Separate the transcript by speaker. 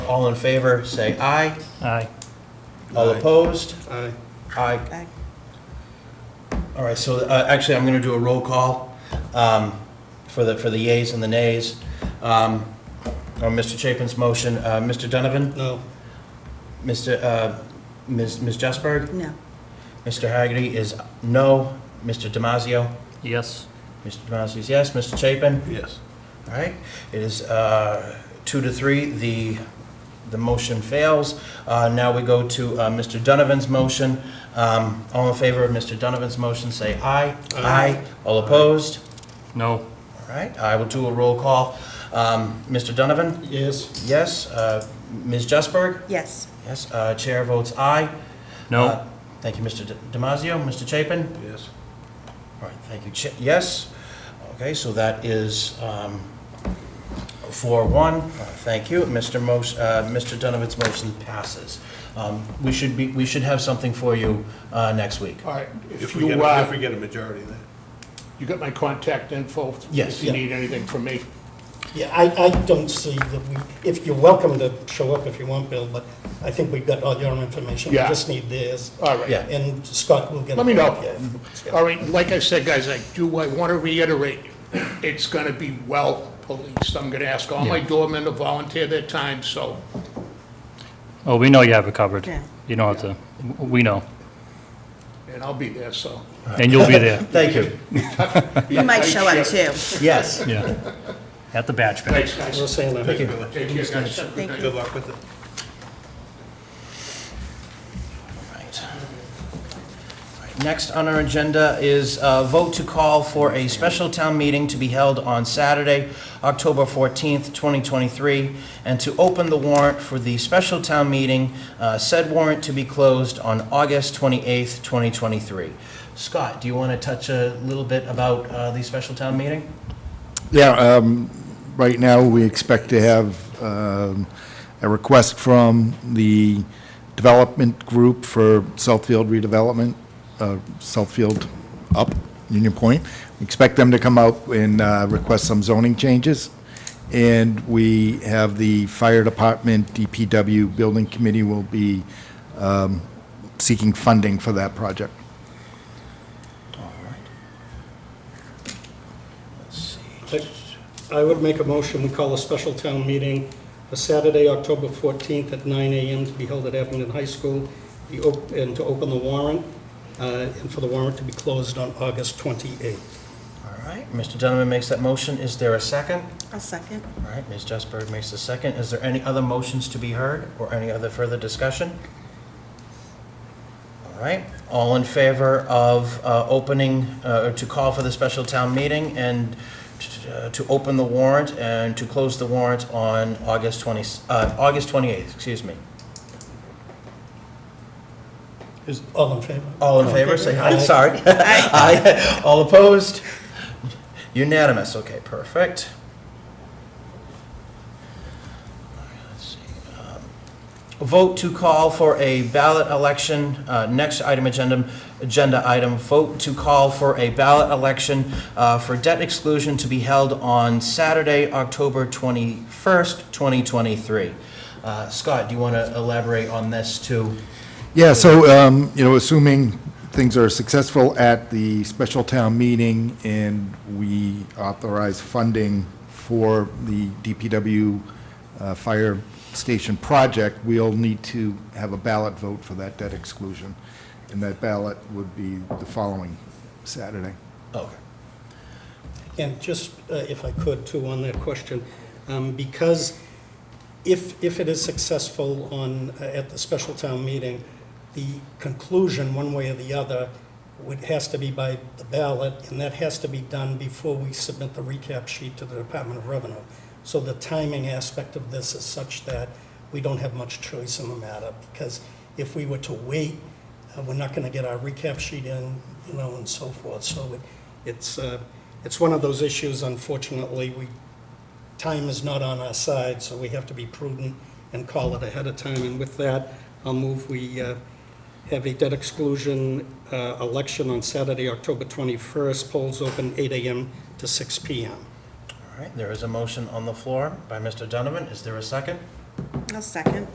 Speaker 1: All in favor, say aye.
Speaker 2: Aye.
Speaker 1: All
Speaker 3: Aye.
Speaker 1: opposed?
Speaker 3: Aye.
Speaker 1: Aye.
Speaker 4: Aye.
Speaker 1: All right, so uh, actually, I'm going to do a roll call um, for the, for the yays and the nays. Um, On Mr. Chapin's motion, uh, Mr. Donovan,
Speaker 3: No.
Speaker 1: Mr., uh, Ms. Ms. Justburg,
Speaker 4: No.
Speaker 1: Mr. Hagerty is no, Mr. Damasio,
Speaker 2: Yes.
Speaker 1: Mr. Damasio is yes, Mr. Chapin,
Speaker 3: Yes.
Speaker 1: all right. It is uh, two to three, the, the motion fails. Uh, Now we go to uh, Mr. Donovan's motion. Um, All in favor of Mr. Donovan's motion, say aye.
Speaker 3: Aye.
Speaker 1: All opposed?
Speaker 2: No.
Speaker 1: All right, I will do a roll call. Um, Mr. Donovan?
Speaker 3: Yes.
Speaker 1: Yes. Uh, Ms. Justburg?
Speaker 4: Yes.
Speaker 1: Yes. Uh, Chair votes aye.
Speaker 2: No.
Speaker 1: Uh, Thank you, Mr. D- Damasio. Mr. Chapin?
Speaker 3: Yes.
Speaker 1: All right, thank you. Cha- Yes. Okay, so that is um, 4-1. Uh, Thank you. Mr. Mos- uh, Mr. Donovan's motion passes. Um, We should be, we should have something for you uh, next week.
Speaker 5: All right,
Speaker 3: If
Speaker 5: if
Speaker 3: we get,
Speaker 5: you,
Speaker 3: a- if
Speaker 5: uh,
Speaker 3: we get a majority then.
Speaker 5: you got my contact info?
Speaker 1: Yes,
Speaker 5: If you
Speaker 1: yeah.
Speaker 5: need anything from me.
Speaker 6: Yeah, I, I don't see that we, if you're welcome to show up if you want, Bill, but I think we've got all your information. We
Speaker 5: Yeah.
Speaker 6: just need theirs.
Speaker 5: All right.
Speaker 1: Yeah.
Speaker 6: And Scott will get.
Speaker 5: Let me
Speaker 6: it.
Speaker 5: know.
Speaker 6: Yeah, if- yeah.
Speaker 5: All right, like I said, guys, I do, I want to reiterate, it's going to be well policed. I'm going to ask all my doormen to volunteer their time, so
Speaker 2: Oh, we know you have it covered.
Speaker 4: Yeah.
Speaker 2: You don't have to, w- we know.
Speaker 5: and I'll be there, so.
Speaker 2: And you'll be there,
Speaker 1: Thank you.
Speaker 4: You might show up too.
Speaker 1: Yes.
Speaker 2: yeah. At the batch pad.
Speaker 5: Thanks, guys.
Speaker 6: We'll say that.
Speaker 3: Thank you, Billy.
Speaker 5: Take care, guys. Have a good
Speaker 4: Thank
Speaker 5: night.
Speaker 4: you.
Speaker 3: Good luck with it.
Speaker 1: Right. Right, Next on our agenda is uh vote to call for a special town meeting to be held on Saturday, October 14th, 2023, and to open the warrant for the special town meeting, uh, said warrant to be closed on August 28th, 2023. Scott, do you want to touch a little bit about uh, the special town meeting?
Speaker 7: Yeah, um, right now, we expect to have um, a request from the development group for Southfield redevelopment, uh, Southfield up, Union Point. We Expect them to come out and uh, request some zoning changes. And we have the fire department, DPW, building committee will be um, seeking funding for that project.
Speaker 6: I would make a motion, we call a special town meeting for Saturday, October 14th at 9 AM to be held at Abington High School, the op- and to open the warrant, uh, and for the warrant to be closed on August 28th.
Speaker 1: All right, Mr. Donovan makes that motion. Is there a second?
Speaker 4: I'll second.
Speaker 1: All right, Ms. Justburg makes the second. Is there any other motions to be heard or any other further discussion? All right, all in favor of uh, opening, uh, to call for the special town meeting and t- uh, to open the warrant and to close the warrant on August 20, uh, August 28th, excuse me.
Speaker 6: All in favor?
Speaker 1: All in favor, say aye,
Speaker 6: Aye.
Speaker 1: Oh, sorry. Aye. All opposed? Unanimous, okay, perfect. Let's see, um, Vote to call for a ballot election, uh, next item agenda, agenda item, vote to call for a ballot election uh, for debt exclusion to be held on Saturday, October 21st, 2023. Uh, Scott, do you want to elaborate on this too?
Speaker 7: Yeah, so, um, you know, assuming things are successful at the special town meeting and we authorize funding for the DPW uh, fire station project, we'll need to have a ballot vote for that debt exclusion. And that ballot would be the following Saturday.
Speaker 1: Okay.
Speaker 6: And just, uh, if I could, too, on that question, um, because if, if it is successful on, uh, at the special town meeting, the conclusion, one way or the other, would, has to be by the ballot, and that has to be done before we submit the recap sheet to the Department of Revenue. So the timing aspect of this is such that we don't have much choice in the matter, because if we were to wait, uh, we're not going to get our recap sheet in, you know, and so forth. So it, it's, uh, it's one of those issues, unfortunately, we, time is not on our side, so we have to be prudent and call it ahead of time. And with that, I'll move we uh, have a debt exclusion uh, election on Saturday, October 21st, polls open 8 AM to 6 PM.
Speaker 1: All right, there is a motion on the floor by Mr. Donovan. Is there a second?
Speaker 4: I'll second.